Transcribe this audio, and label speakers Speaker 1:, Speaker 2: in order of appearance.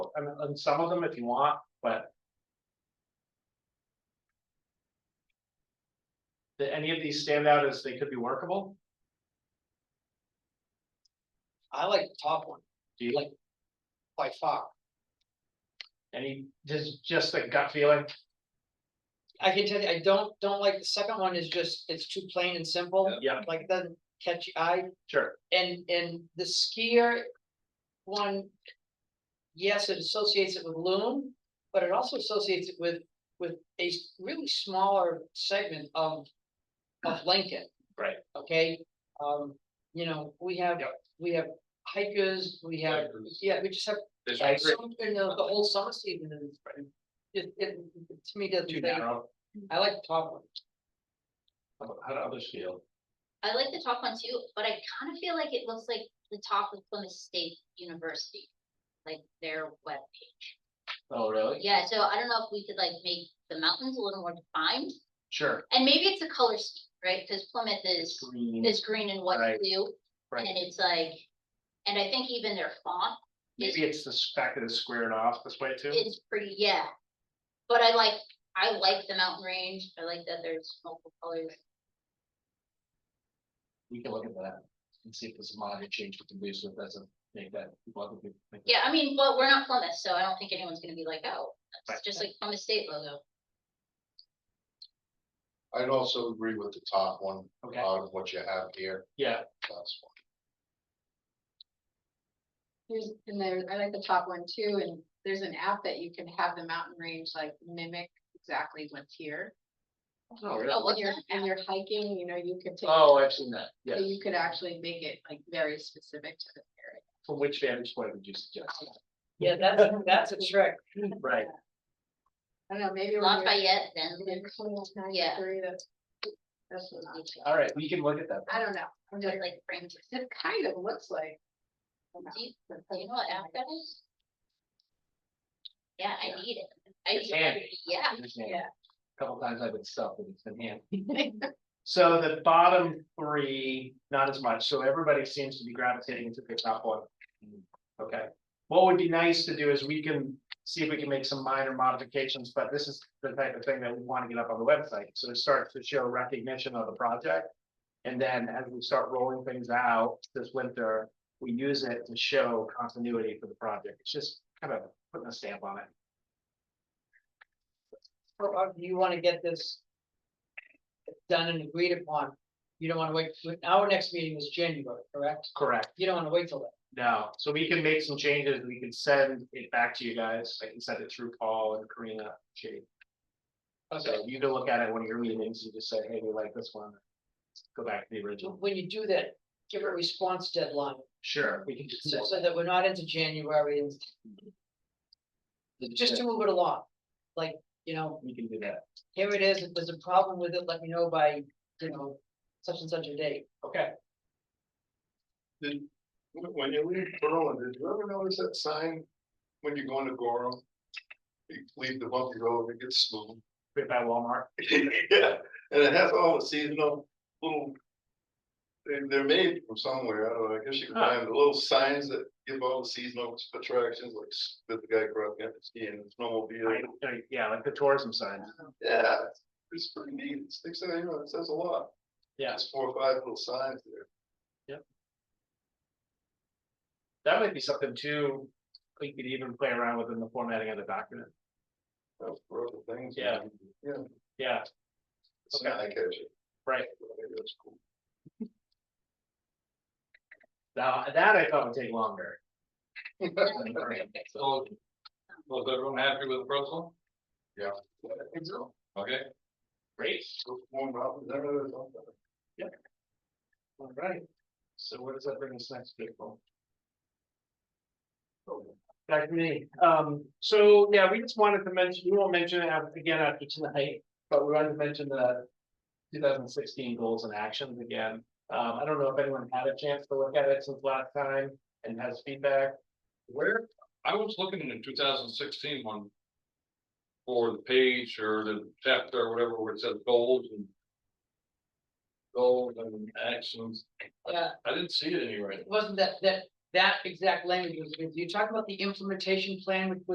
Speaker 1: I mean, on some of them if you want, but. Did any of these stand out as they could be workable?
Speaker 2: I like the top one
Speaker 1: Do you like
Speaker 2: by far.
Speaker 1: any, just, just a gut feeling?
Speaker 2: I can tell you, I don't, don't like, the second one is just, it's too plain and simple,
Speaker 1: Yeah,
Speaker 2: like it doesn't catch your eye.
Speaker 1: sure.
Speaker 2: And, and the skier one, yes, it associates it with loom, but it also associates it with, with a s- really smaller segment of, of Lincoln.
Speaker 1: Right.
Speaker 2: Okay, um, you know, we have,
Speaker 1: Yep.
Speaker 2: we have hikers, we have, yeah, we just have
Speaker 1: There's
Speaker 2: Yeah, so, you know, the whole summer season is, it, it, to me, doesn't,
Speaker 1: Too
Speaker 2: make-
Speaker 1: narrow.
Speaker 2: I like the top one.
Speaker 1: How about- how do others feel?
Speaker 3: I like the top one too, but I kind of feel like it looks like the top of Plymouth State University, like their webpage.
Speaker 1: Oh, really?
Speaker 3: Yeah, so I don't know if we could like make the mountains a little more defined,
Speaker 1: Sure.
Speaker 3: and maybe it's a color scheme, right? Because Plymouth is,
Speaker 1: Green,
Speaker 3: is green and white
Speaker 1: Right,
Speaker 3: blue, and
Speaker 1: right.
Speaker 3: it's like, and I think even their font
Speaker 1: Maybe it's the fact that it's squared off this way too.
Speaker 3: is pretty, yeah. But I like, I like the mountain range, I like that there's multiple colors.
Speaker 1: We can look at that and see if there's a minor change with the blue, so it doesn't make that.
Speaker 3: Yeah, I mean, well, we're not Plymouth, so I don't think anyone's gonna be like, oh,
Speaker 1: Right.
Speaker 3: that's just like Plymouth State logo.
Speaker 4: I'd also agree with the top one,
Speaker 1: Okay,
Speaker 4: out of what you have here,
Speaker 1: yeah.
Speaker 4: that's one.
Speaker 5: There's, and there, I like the top one too, and there's an app that you can have the mountain range like mimic exactly what's here.
Speaker 1: Oh,
Speaker 3: Oh,
Speaker 5: When
Speaker 3: what's
Speaker 5: you're,
Speaker 3: that?
Speaker 5: and you're hiking, you know, you could take.
Speaker 1: Oh, I've seen that,
Speaker 5: so
Speaker 1: yes.
Speaker 5: You could actually make it like very specific to the area.
Speaker 1: From which vantage point would you suggest?
Speaker 2: Yeah, that's, that's a trick.
Speaker 1: Right,
Speaker 5: I don't know, maybe. when you're-
Speaker 3: Lafayette, then.
Speaker 5: when you're coming up to
Speaker 3: Yeah.
Speaker 5: 93, that's- That's what I'm,
Speaker 1: all right, we can look at that.
Speaker 5: I don't know, I'm
Speaker 3: Just
Speaker 5: just,
Speaker 3: like frames.
Speaker 5: it kind of looks like. a
Speaker 3: Do you,
Speaker 5: mountain,
Speaker 3: do you know what app that is? Yeah, I
Speaker 1: Yeah.
Speaker 3: need it. I
Speaker 1: It's
Speaker 3: use it every-
Speaker 1: handy.
Speaker 3: Yeah,
Speaker 1: Understand.
Speaker 5: Yeah.
Speaker 1: Couple times I've been stuck and it's been hand. So the bottom three, not as much, so everybody seems to be gravitating to the top one. Okay, what would be nice to do is we can see if we can make some minor modifications, but this is the type of thing that we want to get up on the website, so it starts to show recognition of the project. And then as we start rolling things out this winter, we use it to show continuity for the project, it's just kind of putting a stamp on it.
Speaker 2: Or, or uh, you wanna get this done and agreed upon, you don't wanna wait, our next meeting is January, correct?
Speaker 1: Correct.
Speaker 2: You don't wanna wait till that.
Speaker 1: No, so we can make some changes, we can send it back to you guys, I can send it through Paul and Karina, Jake. So you can look at it when you're meetings and just say, hey, we like this one. Go back to the original,
Speaker 2: When you do that, give a response deadline,
Speaker 1: sure, we can just.
Speaker 2: so, so that we're not into January and just to move it along. Like, you know,
Speaker 1: We can do that,
Speaker 2: here it is, if there's a problem with it, let me know by, you know, such and such a date.
Speaker 1: okay,
Speaker 4: Did- when- when you leave Berlin, did you ever notice that sign when you're going to Goro? You leave the bumpy road, it gets smooth.
Speaker 1: right by Walmart,
Speaker 4: Yeah, and it has all the seasonal little. They, they're made from somewhere, I don't know, I guess you can
Speaker 1: Huh.
Speaker 4: find the little signs that give all the seasonal attractions, like s- that the guy grew up in, skiing, snowmobile.
Speaker 1: I- I- yeah, like the tourism signs,
Speaker 4: Yeah, it's pretty neat, it sticks out, you know, it says a lot.
Speaker 1: yeah,
Speaker 4: There's four or five little signs there.
Speaker 1: that might be something too. We could even play around within the formatting of the document,
Speaker 4: That's for other things.
Speaker 1: Yeah.
Speaker 4: Yeah.
Speaker 1: yeah,
Speaker 4: It's not like that,
Speaker 1: right,
Speaker 4: That's cool.
Speaker 1: now, that I thought would take longer.
Speaker 6: So, was everyone happy with the first one?
Speaker 4: I think so.
Speaker 6: Okay,
Speaker 1: Great.
Speaker 4: Go Warm up, is that really something?
Speaker 1: All right, so what does that bring us next, April? Oh, Back to me, um, so, yeah, we just wanted to mention, we won't mention it af- again after tonight, but we wanted to mention the. Two thousand sixteen goals and actions again, um, I don't know if anyone had a chance to look at it since last time and has feedback.
Speaker 6: where, I was looking in the 2016 one For the page or the chapter or whatever, where it says goals and. Goals and actions,
Speaker 2: Yeah,
Speaker 6: I didn't see it anywhere,
Speaker 2: it wasn't that, that that exact language was, with you talk about the implementation plan, which was